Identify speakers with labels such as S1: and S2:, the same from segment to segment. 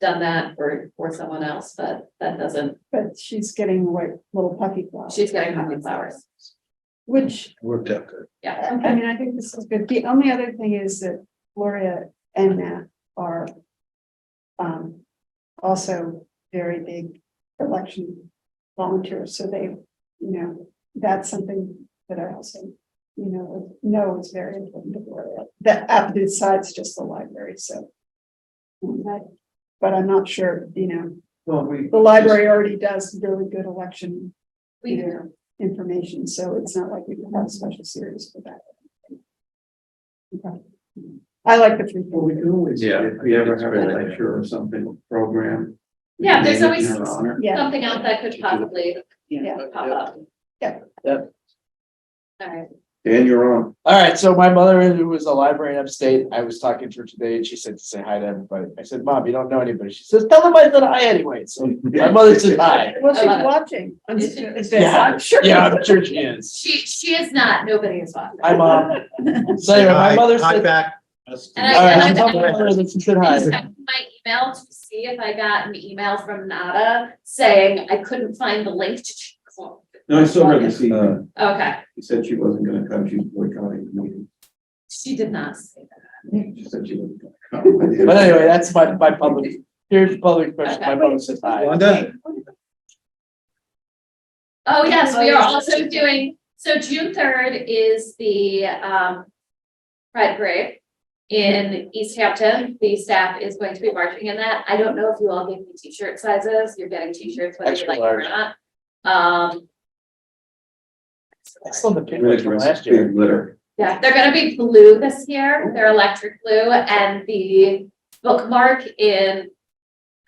S1: done that for, for someone else, but that doesn't,
S2: But she's getting white little puffy flowers.
S1: she's getting pumpkin flowers.
S2: Which,
S3: Worked out good.
S1: Yeah,
S2: I mean, I think this is good. The only other thing is that Gloria and Matt are um, also very big election volunteers, so they, you know, that's something that I also, you know, know is very important to Gloria. That, uh, besides just the library, so. um, that- But I'm not sure, you know,
S3: Well, we.
S2: the library already does really good election
S1: we
S2: Yeah.
S1: do.
S2: information, so it's not like we can have a special series for that. Okay. I like the three.
S3: Well, we can always,
S4: Yeah,
S3: if we ever
S4: it's
S3: have
S4: really
S3: a lecture or something, program.
S1: Yeah, there's
S3: maybe
S1: always
S3: in her honor.
S2: Yeah,
S1: something else that could possibly
S2: yeah.
S1: pop up.
S2: Yeah.
S5: Yep.
S1: All right,
S3: Dan, you're on.
S5: All right, so my mother, who was a librarian upstate, I was talking to her today and she said to say hi to everybody. I said, Mom, you don't know anybody. She says, Tell them I said hi anyway. So my mother said hi.
S2: Well, she's
S1: Uh,
S2: watching. I'm
S1: is
S2: sure-
S5: Yeah.
S2: I'm sure.
S5: Yeah, I'm sure she is.
S1: she, she is not, nobody is watching.
S5: Hi, Mom. So anyway, my mother said, All
S4: back.
S1: And
S5: right, I
S1: I-
S5: told my mother that she said
S1: I
S5: hi.
S1: checked My email to see if I got an email from Nada saying I couldn't find the link to.
S3: No, I saw her this evening.
S1: Okay,
S3: She uh, said she wasn't gonna come. She's boycotting the meeting.
S1: she did not say that.
S3: She said she wasn't gonna come.
S5: But anyway, that's my, my public, here's the public question. My mother said hi.
S4: Wanda?
S1: Oh, yes, we are
S2: Oh, yeah.
S1: also doing, so June third is the um Pride Parade in East Hampton. The staff is going to be marching in that. I don't know if you all gave me t-shirt sizes. You're getting t-shirts whether you
S5: Extra
S1: like it or
S5: large.
S1: not. Um.
S5: I saw the pin
S3: Really
S5: from last
S3: aggressive,
S5: year.
S3: big litter.
S1: Yeah, they're gonna be blue this year. They're electric blue and the bookmark in,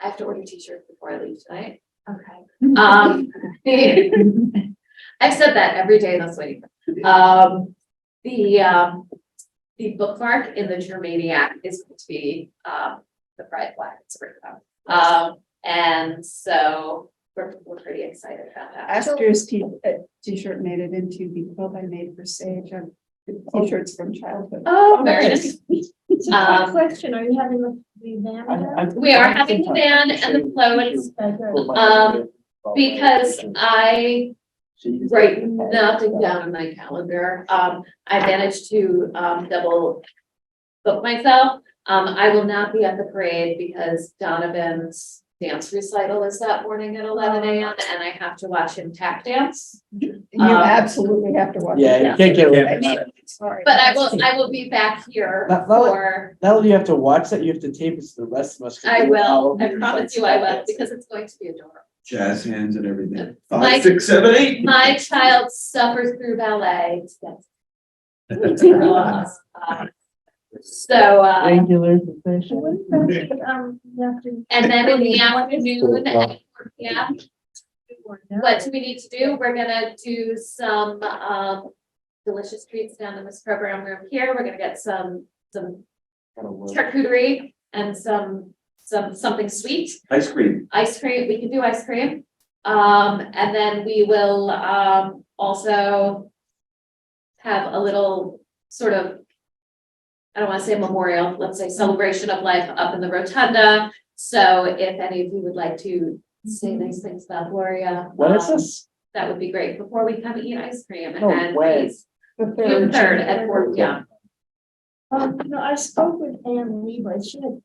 S1: I have to order t-shirts before I leave tonight. Okay. Um, the- I've said that every day this week. Um, the, um, the bookmark in the Germaniac is going to be, um, the pride flag. It's written on. Um, and so we're, we're pretty excited about that.
S2: Astor's t- uh, t-shirt made it into the quilt I made for Sage. um, T-shirts from childhood.
S1: Oh, very nice.
S6: So
S1: Um,
S6: quick question, are you having the the van
S5: I-
S6: there?
S5: I-
S1: We are having the band and the floats.
S6: Okay, good.
S1: Um, Because uh, I write nothing down in my calendar. Um, I managed to, um, double book myself. Um, I will not be at the parade because Donovan's dance recital is that morning at eleven AM and I have to watch him tap dance.
S2: You
S1: um,
S2: absolutely have to watch. it.
S5: Yeah, you can't get away
S2: I
S5: from
S2: mean,
S5: that.
S2: sorry.
S1: But I will, I will be back here
S5: That- that was-
S1: for,
S5: Not only you have to watch that, you have to tape it so the rest of us. can
S1: I
S5: do it all
S1: will, I
S5: over
S1: promise you I will, because it's going to be adorable.
S3: Jazz hands and everything.
S1: Mike-
S3: Five, six, seven, eight.
S1: My child suffers through ballet. That's- It's real awesome. Uh, So, uh.
S5: Angular
S6: So
S5: sensation.
S6: what is that, um, you have to
S1: And then in the afternoon,
S5: Cool.
S1: at 4 p.m.,
S6: do or no?
S1: what do we need to do? We're gonna do some, um, delicious treats down in this program room here. We're gonna get some, some
S5: Gotta work.
S1: charcuterie and some, some, something sweet.
S3: Ice cream.
S1: Ice cream, we can do ice cream. Um, and then we will, um, also have a little sort of, I don't wanna say memorial, let's say celebration of life up in the rotunda. So if any of you would like to say nice things about Gloria.
S5: What is
S1: um,
S5: this?
S1: That would be great before we come eat ice cream
S5: No
S1: and
S5: way.
S1: please,
S2: The
S1: June
S2: third.
S1: third at four P M.
S6: Um, no, I spoke with Anne Levi, she had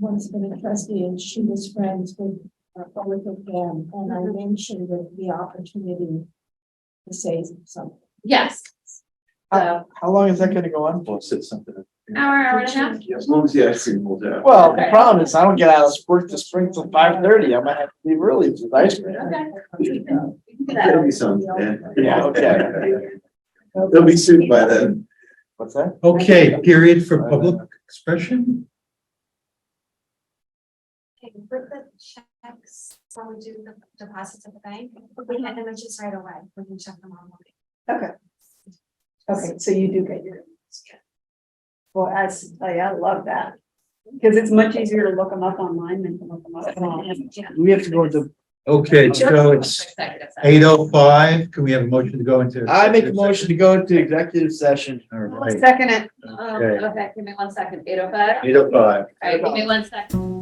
S6: once been a trustee and she was friends with, uh, with them, and I
S2: Mm-hmm.
S6: mentioned the, the opportunity to say something.
S1: Yes. So,
S5: How long is that gonna go on for?
S4: Well, said something.
S1: hour, hour and a half.
S3: As long as the ice cream holds out.
S5: Well, the problem is I don't get out of work this spring till five thirty. I might have to leave early to the ice cream.
S1: Okay. We can do that.
S3: There'll be some, Dan.
S5: Yeah, okay.
S3: They'll be soon by then.
S5: What's that?
S4: Okay, period for public expression?
S7: Okay, with the checks, when we do the deposits at the bank, we had images right away, we can check them on.
S2: Okay, so you do get your. Well, I, s- I I love that, because it's much easier to look them up online than to look them up. online.
S5: We have to go to,
S4: Okay, so it's
S1: Executive session.
S4: eight oh five. Can we have a motion to go into?
S5: I make a motion to go into executive session.
S4: All right.
S2: Second it.
S1: Um, okay, give me one second, eight oh five.
S4: Eight oh five.
S1: All right, give me one second.